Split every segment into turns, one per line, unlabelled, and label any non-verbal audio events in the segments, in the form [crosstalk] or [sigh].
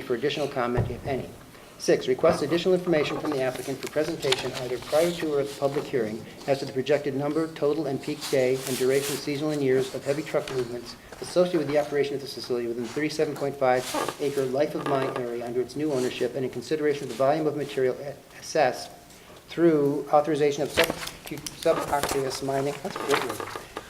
for additional comment, if any. Six, request additional information from the applicant for presentation either prior to or at the public hearing as to the projected number, total, and peak day and duration, seasonal and years of heavy truck movements associated with the operation of this facility within 37.5 acre life of mine area under its new ownership and in consideration of the volume of material a- assessed through authorization of sub- subaqueous mining, that's a great word,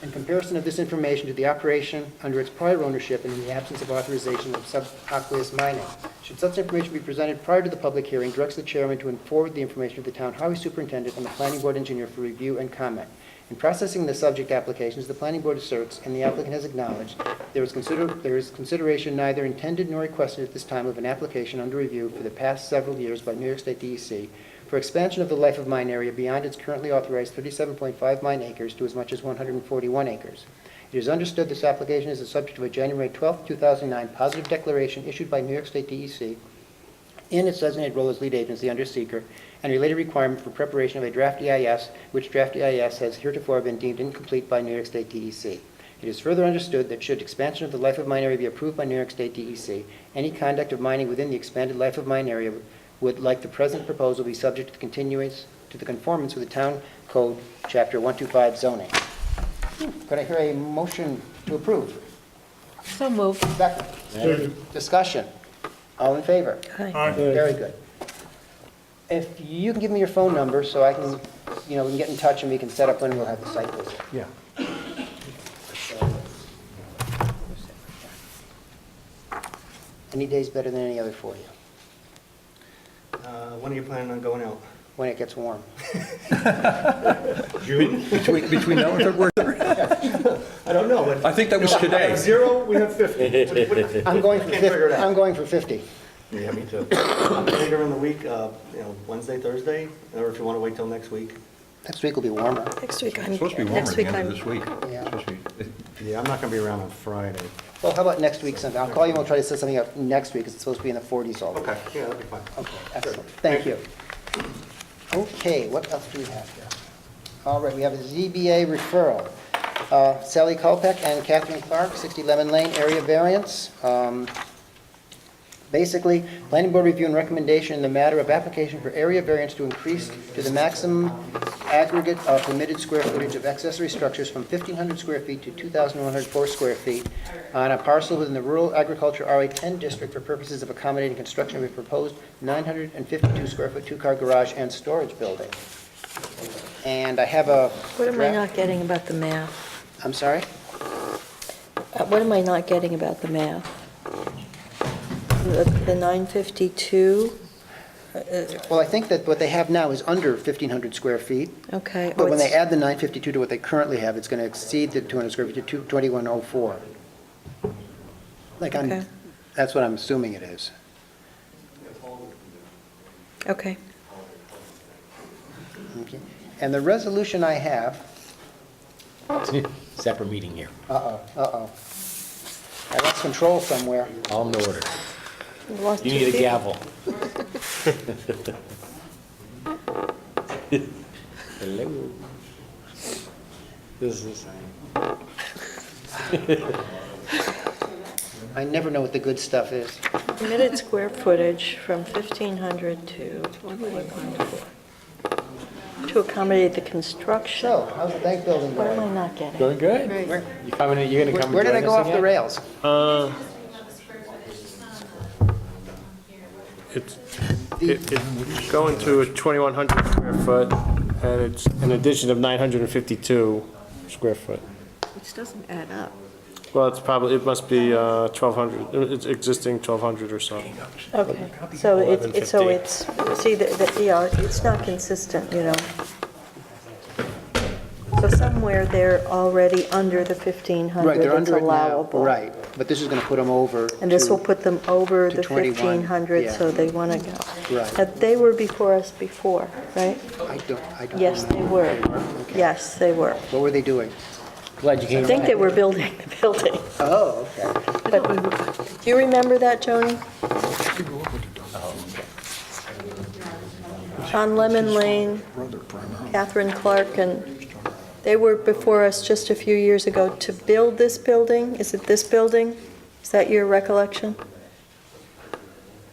in comparison of this information to the operation under its prior ownership and in the absence of authorization of subaqueous mining. Should such information be presented prior to the public hearing, directs the chairman to forward the information to the town highway superintendent and the planning board engineer for review and comment. In processing the subject applications, the planning board asserts, and the applicant has acknowledged, there is consider, there is consideration neither intended nor requested at this time of an application under review for the past several years by New York State DEC for expansion of the life of mine area beyond its currently authorized 37.5 mine acres to as much as 141 acres. It is understood this application is the subject of a January 12, 2009 positive declaration issued by New York State E DEC in its designated role as lead agency under seeker and related requirement for preparation of a draft EIS, which draft EIS has heretofore been deemed incomplete by New York State DEC. It is further understood that should expansion of the life of mine area be approved by New York State DEC, any conduct of mining within the expanded life of mine area would, like the present proposal, be subject to the continuance, to the conformance with the town code, chapter 125 zoning. Hmm, Could I hear a motion to approve?
So moved.
Second. Discussion. All in favor?
Uh,
Very good. If you can give me your phone number so I can, you know, we can get in touch and we can set up when we'll have the site visit.
Yeah.
Any day's better than any other for you,
Uh, When are you planning on going out?
when it gets warm.
June?
Between, between now and February,
I don't know. but-
I think that was
I have
today.
Zero, we have 50. What- what-
I'm going for
[laughs] Can't figure it
50,
out.
I'm going for 50.
Yeah, me too. Later in the week, uh, you know, Wednesday, Thursday, or if you want to wait till next week.
Next week will be warmer.
Next week I'm,
It's supposed to be warmer
next
at the
week
end
I'm,
of this week.
Yeah.
Supposed to be-
Yeah, I'm not going to be around on Friday.
Well, how about next week sometime? I'll call you and we'll try to set something up next week, 'cause it's supposed to be in the 40s all week.
Okay, yeah, that'd be fine.
Okay, excellent, thank you. Okay, what else do we have here? All right, we have a ZBA referral. Uh, Sally Kolpeck and Catherine Clark, 60 Lemon Lane, area variance. Um, Basically, planning board review and recommendation in the matter of application for area variance to increase to the maximum aggregate of permitted square footage of accessory structures from 1,500 square feet to 2,104 square feet on a parcel within the rural agriculture RA10 district for purposes of accommodating construction of a proposed 952 square foot two-car garage and storage building. And I have a
what am I
draft-
not getting about the math?
I'm sorry?
Uh, What am I not getting about the math? The the Uh, 952,
Well, I think that what they have now is under 1,500 square feet.
okay.
But
oh,
when they
it's-
add the 952 to what they currently have, it's going to exceed the 200 square feet to 2104. Like, I'm,
Okay.
that's what I'm assuming it is.
Okay,
Okay. And the resolution I have,
[laughs] Separate meeting here.
uh-oh, uh-oh. I lost control somewhere.
All in order.
We lost
You
two
need a
people.
gavel. [laughs] Hello. This is,
I never know what the good stuff is.
Permitted square footage from 1,500 to 2,104. To accommodate the construction.
So, how's the bank building
What am I
going?
not getting?
going good?
Right.
You coming, in- you gonna
Where
come
where did I
and
go
join
off
us
the
again?
rails?
Uh, It's, it- it's going to a 2,100 square foot, and it's an addition of 952 square foot.
Which doesn't add up.
Well, it's probably, it must be uh, 1,200, it's existing 1,200 or so.
Okay, so it's, it's- so it's, see, the, the- yeah, it's not consistent, you know. So somewhere they're already under the
Right,
1,500
they're
that's
under it now.
allowable.
Right, but this is going to put them over.
And this
to-
will put them over
to
the
21,
1,500,
yeah.
so they want to go.
Right.
But they were before us before, right?
I don't, I don't.
Yes, they
remember.
were.
Okay.
Yes, they were.
What were they doing?
Glad you
I
came.
think they were building the [laughs] building.
Oh, okay.
Do you remember that, Joni? On Lemon Lane, Catherine Clark, and they were before us just a few years ago to build this building. Is it this building? Is that your recollection?